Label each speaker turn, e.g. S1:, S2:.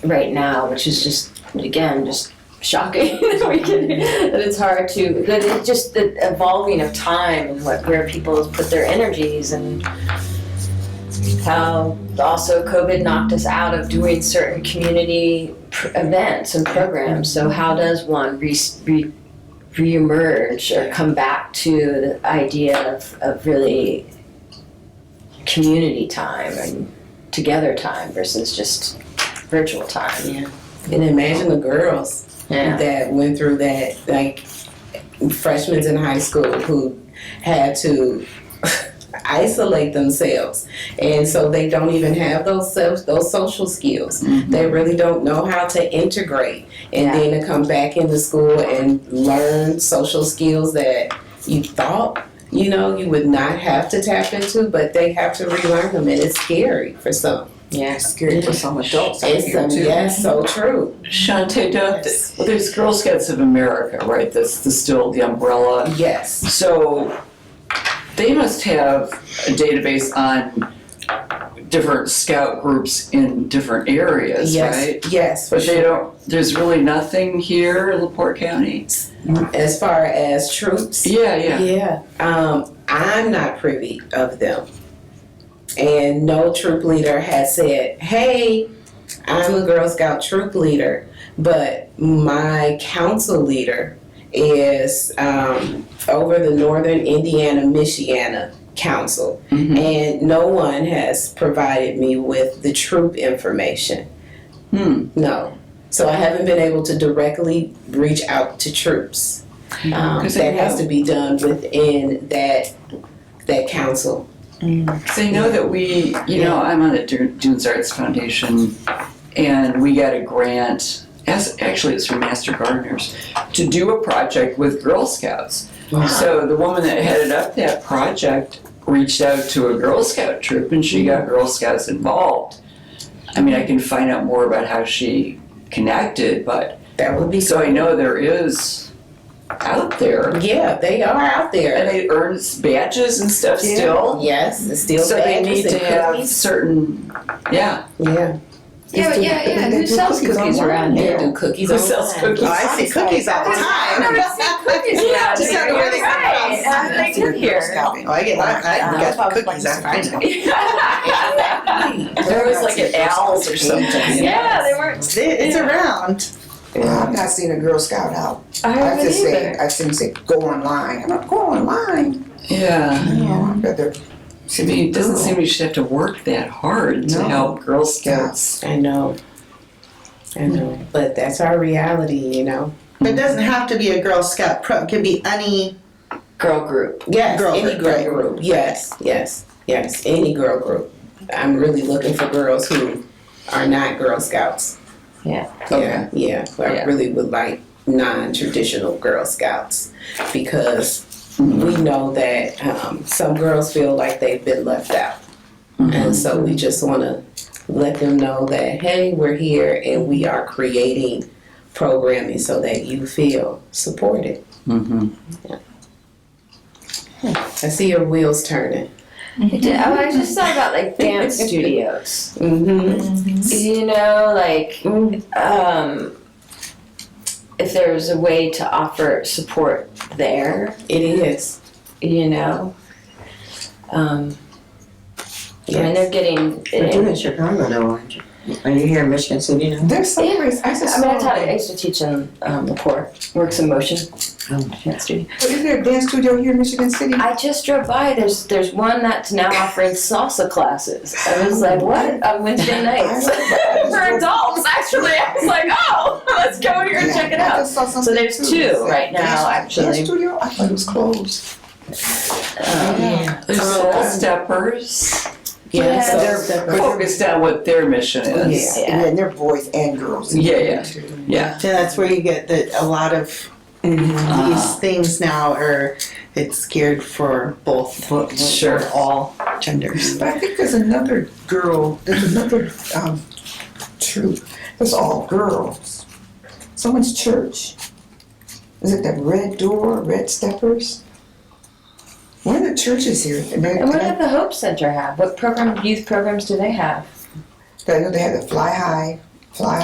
S1: right now, which is just, again, just shocking that we can, that it's hard to, that it's just the evolving of time and what, where people put their energies and how also COVID knocked us out of doing certain community pr- events and programs. So how does one re, re, reemerge or come back to the idea of, of really community time and together time versus just virtual time?
S2: And imagine the girls that went through that, like freshmen in high school who had to isolate themselves, and so they don't even have those self, those social skills.
S3: Mm-hmm.
S2: They really don't know how to integrate, and
S1: Yeah.
S2: then to come back into school and learn social skills that you thought. You know, you would not have to tap into, but they have to relearn them, and it's scary for some.
S1: Yeah.
S3: Scary for some adults out
S2: It's
S3: here
S2: some,
S3: too.
S2: yes, so true.
S3: Shante, don't,
S2: Yes.
S3: well, there's Girl Scouts of America, right, that's the, still the umbrella.
S2: Yes.
S3: So they must have a database on different scout groups in different areas,
S2: yes,
S3: right?
S2: Yes, for
S3: But they
S2: sure.
S3: don't, there's really nothing here in LaPorte County?
S2: As far as troops,
S3: Yeah, yeah.
S2: Um, I'm not privy of them. And no troop leader has said, hey, I'm a Girl Scout troop leader, but my council leader is um, over the Northern Indiana, Michiana Council. Mm-hmm.
S3: Mhm.
S2: And no one has provided me with the troop information.
S3: Hmm.
S2: No. So I haven't been able to directly reach out to troops.
S3: Mm-hmm.
S2: Um,
S3: 'Cause they
S2: that has to be done within that that council.
S3: Because I know that we, you know, I'm on the Du- Dunes Arts Foundation, and we got a grant, as, actually it's from Master Gardeners, to do a project with Girl Scouts.
S2: Wow.
S3: So the woman that headed up that project reached out to a Girl Scout troop, and she got Girl Scouts involved. I mean, I can find out more about how she connected, but,
S2: That would be
S3: so I know there is out there,
S2: Yeah, they are out
S3: and
S2: there.
S3: they earn badges and stuff
S2: Yeah.
S3: still.
S2: Yes, it's still
S3: So they
S2: badges
S3: need to
S2: and
S3: have
S2: cookies.
S3: certain, yeah.
S2: Yeah.
S1: Yeah, but yeah, yeah. Who sells cookies around
S2: They
S1: here?
S2: do cookies
S3: Who
S2: on
S3: sells
S2: time.
S3: cookies?
S4: Oh, I see cookies all the time.
S1: I've never seen cookies.
S3: Yeah,
S4: Just have to wear the
S1: You're right. How did they
S4: That's a
S1: get
S4: good
S1: here?
S4: Girl Scout. Oh, I get, I
S1: That's
S4: get cookies, I find them.
S3: There was like an owls or something.
S1: Yeah, they weren't.
S4: It's it's around. I've not seen a Girl Scout out.
S1: I
S4: I've
S1: haven't
S4: just seen,
S1: either.
S4: I've seen say, go online. I'm not going online.
S3: Yeah.
S4: No, I'd rather.
S3: I mean, it doesn't seem you should have to work that hard to
S4: No.
S3: help Girl Scouts.
S2: I know. I know. But that's our reality, you know.
S5: It doesn't have to be a Girl Scout pro. It could be any.
S1: Girl group.
S2: Yes,
S5: Girl
S2: any
S5: group,
S2: girl
S5: right.
S2: group. Yes, yes, yes, any girl group. I'm really looking for girls who are not Girl Scouts.
S1: Yeah.
S2: Yeah, yeah. I
S3: Yeah.
S2: really would like non-traditional Girl Scouts because we know that um, some girls feel like they've been left out, and so we just want to let them know that hey, we're here and we are creating programming so that you feel supported.
S3: Mm-hmm.
S2: I see your wheels turning.
S1: I did- oh, I just thought about like dance studios.
S2: Mm-hmm.
S1: You know, like um, if there was a way to offer support there,
S2: It is.
S1: you know. Um, And they're getting.
S4: Chicago though, aren't you? Are you here in Michigan City now? There's some
S1: Yeah.
S4: place,
S1: I
S4: I just
S1: mean,
S4: saw.
S1: I taught. I used to teach in um, Laporte, Works in Motion. dance studio.
S4: Is there a dance studio here in Michigan City?
S1: I just drove by. There's there's one that's now offering salsa classes. I was like, what on Wednesday nights for adults? Actually, I was like, oh, let's go here and
S4: Yeah,
S1: check it
S4: I
S1: out.
S4: just saw
S1: So
S4: something
S1: there's
S4: too.
S1: two right
S4: Dance-
S1: now,
S4: Dance
S1: actually.
S4: studio? I thought it was closed.
S1: Um,
S3: There's
S2: Oh,
S3: Soul
S2: okay.
S3: Steppers.
S1: Yeah.
S2: so
S3: They're
S2: separate.
S3: focused on what their mission is.
S4: Yeah, and then they're boys and girls.
S3: Yeah, yeah. Yeah.
S5: Yeah, that's where you get the a lot of
S3: Uh-huh.
S5: these things now are. It's geared for both.
S3: Sure.
S5: All genders.
S4: But I think there's another girl, there's another um, troop. It's all girls. Someone's church. Is it the Red Door, Red Steppers? One of the churches here. And they,
S1: And what did the Hope Center have? What program, youth programs do they have?
S4: they, they had the Fly High, Fly